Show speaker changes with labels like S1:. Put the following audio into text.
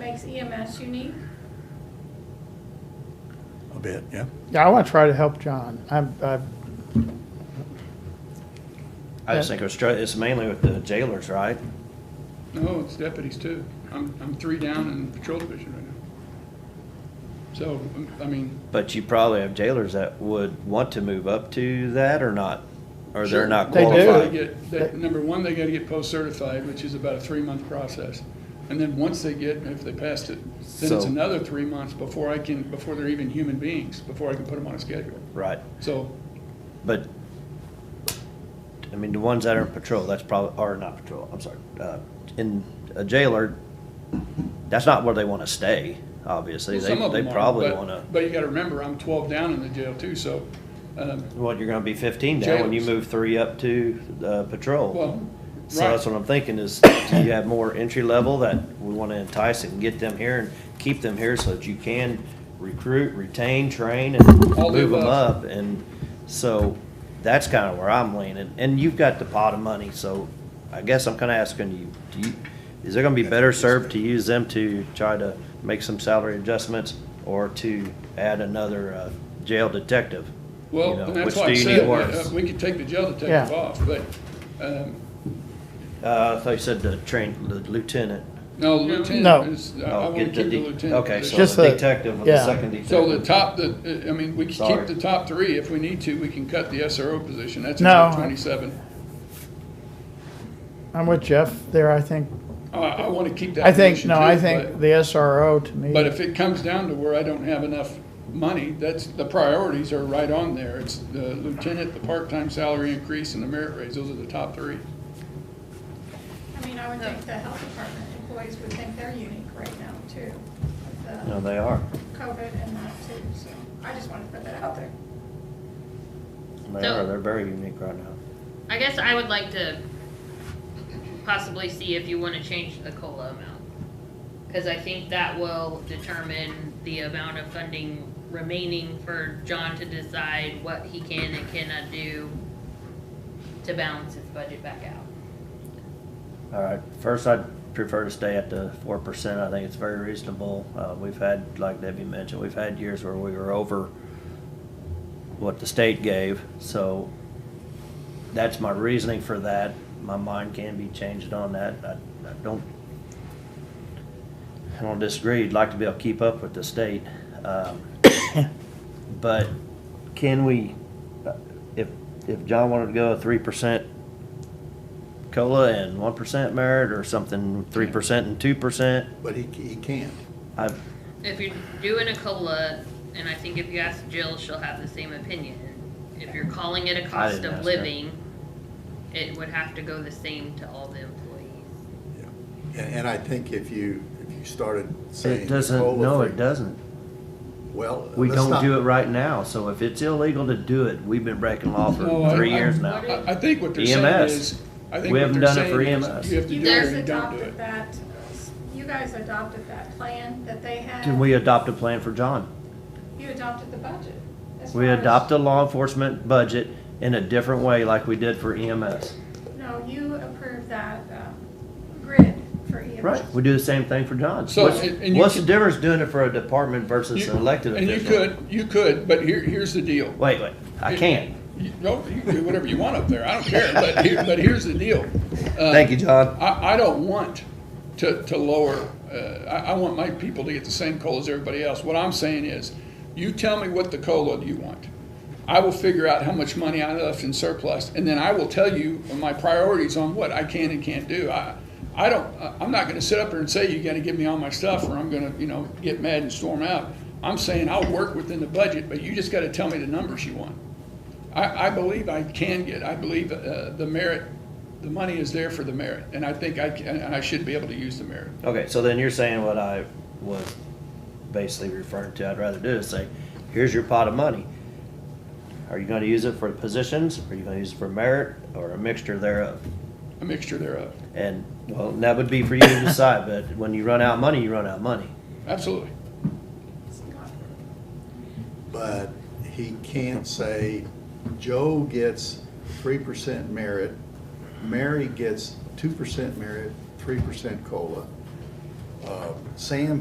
S1: makes EMS unique?
S2: a bit, yeah.
S3: Yeah, I want to try to help John. I'm, I,
S4: I just think it was, str- it's mainly with the jailers, right?
S5: No, it's deputies too. I'm, I'm three down in the patrol division right now. So, um, I mean,
S4: But you probably have jailers that would want to move up to that or not, or
S5: Sure.
S4: they're not
S3: They do.
S5: they
S4: qualified.
S5: get, they, number one, they gotta get post-certified, which is about a three-month process. And then once they get, if they passed it, then it's
S4: So-
S5: another three months before I can, before they're even human beings, before I can put them on a schedule.
S4: Right,
S5: So,
S4: but, I mean, the ones that are in patrol, that's probably, or not patrol, I'm sorry, uh, in a jailer, that's not where they wanna stay, obviously.
S5: well,
S4: They,
S5: some of
S4: they
S5: them are,
S4: probably
S5: but-
S4: wanna,
S5: But you gotta remember, I'm twelve down in the jail too, so, um,
S4: well, you're gonna be fifteen now when you
S5: Jailers.
S4: move three up to, uh, patrol.
S5: well,
S4: So
S5: right.
S4: that's what I'm thinking is, do you have more entry level that we want to entice and get them here and keep them here so that you can recruit, retain, train, and
S5: All the
S4: move them up?
S5: above.
S4: And so that's kind of where I'm leaning. And you've got the pot of money, so I guess I'm kind of asking you, do you, is it going to be better served to use them to try to make some salary adjustments or to add another uh, jail detective? You
S5: Well,
S4: know,
S5: and that's
S4: which
S5: why
S4: do
S5: I
S4: you need
S5: said,
S4: worse?
S5: uh, we could take the jail detective
S3: Yeah.
S5: off, but, um,
S4: Uh, I thought you said the train, the lieutenant.
S5: no, lieutenant
S3: No.
S5: is, I- I
S4: Oh,
S5: wanna
S4: get
S5: keep
S4: the
S5: the
S4: de-
S5: lieutenant.
S4: Okay,
S5: position.
S4: so
S3: Just
S4: the
S3: the-
S4: detective, the
S3: yeah.
S4: second detective.
S5: So the top, the, I mean, we could
S4: Sorry.
S5: keep the top three if we need to, we can cut the SRO position, that's
S3: No,
S5: another
S3: I-
S5: twenty-seven.
S3: I'm with Jeff there, I think.
S5: I, I wanna keep that
S3: I think,
S5: position
S3: no,
S5: too,
S3: I think
S5: but-
S3: the SRO to me.
S5: But if it comes down to where I don't have enough money, that's, the priorities are right on there, it's the lieutenant, the part-time salary increase, and the merit raise, those are the top three.
S1: I mean, I would think the health department employees would think they're unique right now too, with
S4: No,
S1: the
S4: they are.
S1: COVID and that too, so I just wanted to put that out there.
S4: They
S6: So-
S4: are. They're very unique right now.
S6: I guess I would like to possibly see if you want to change the COLA amount. Because I think that will determine the amount of funding remaining for John to decide what he can and cannot do to balance his budget back out.
S4: All right. First, I'd prefer to stay at the four percent. I think it's very reasonable. Uh, we've had, like Debbie mentioned, we've had years where we were over what the state gave. So that's my reasoning for that. My mind can be changed on that. I, I don't. I don't disagree. You'd like to be able to keep up with the state, um, but can we? uh, If if John wanted to go three percent cola and one percent merit or something, three percent and two percent.
S2: But he, he can't.
S4: I,
S6: If you're doing a COLA, and I think if you ask Jill, she'll have the same opinion. If you're calling it a cost
S4: didn't ask
S6: of
S4: her.
S6: living, it would have to go the same to all the employees.
S2: Yeah. And, and I think if you, if you started saying.
S4: it doesn't,
S2: COLA
S4: no,
S2: free-
S4: it doesn't.
S2: Well.
S4: We
S2: let's
S4: don't
S2: not-
S4: do it right now, so if it's illegal to do it, we've been breaking law
S5: No,
S4: for
S5: Oh, I-
S4: three
S5: I-
S4: years now.
S5: I, I think what they're saying
S4: EMS.
S5: is, I think
S4: E We
S5: what
S4: haven't
S5: they're
S4: done it for E
S5: saying
S4: EMS.
S5: is, you have to
S1: You
S5: do it
S1: guys
S5: or you don't do it.
S1: adopted that, you guys adopted that plan that they had.
S4: Can we adopt a plan for John?
S1: You adopted the budget. as
S4: We
S1: far as-
S4: adopt a law enforcement budget in a different way like we did for E EMS.
S1: No, you approved that um, grid for E EMS.
S4: Right, we do the same thing for John.
S5: So,
S4: What's,
S5: and- and you
S4: what's the
S5: can-
S4: difference doing it for a department versus
S5: You-
S4: an elected
S5: And you
S4: official?
S5: could, you could, but here, here's the deal.
S4: Wait, wait, I can't.
S5: You- No, you can do whatever you want up there, I don't care, but here, but here's the deal. Uh,
S4: Thank you, John.
S5: I, I don't want to, to lower, uh, I, I want my people to get the same COLA as everybody else. What I'm saying is, you tell me what the COLA you want. I will figure out how much money I left in surplus, and then I will tell you my priorities on what I can and can't do. I, I don't, I- I'm not gonna sit up here and say, you gotta give me all my stuff, or I'm gonna, you know, get mad and storm out. I'm saying I'll work within the budget, but you just gotta tell me the numbers you want. I, I believe I can get, I believe uh, the merit, the money is there for the merit, and I think I can, and I should be able to use the merit.
S4: Okay, so then you're saying what I was basically referring to, I'd rather do is say, here's your pot of money. Are you gonna use it for positions, are you gonna use it for merit, or a mixture thereof?
S5: A mixture thereof,
S4: And, well, that would be for you to decide, but when you run out of money, you run out of money.
S5: absolutely.
S2: But he can't say, Joe gets three percent merit, Mary gets two percent merit, three percent COLA. Uh, Sam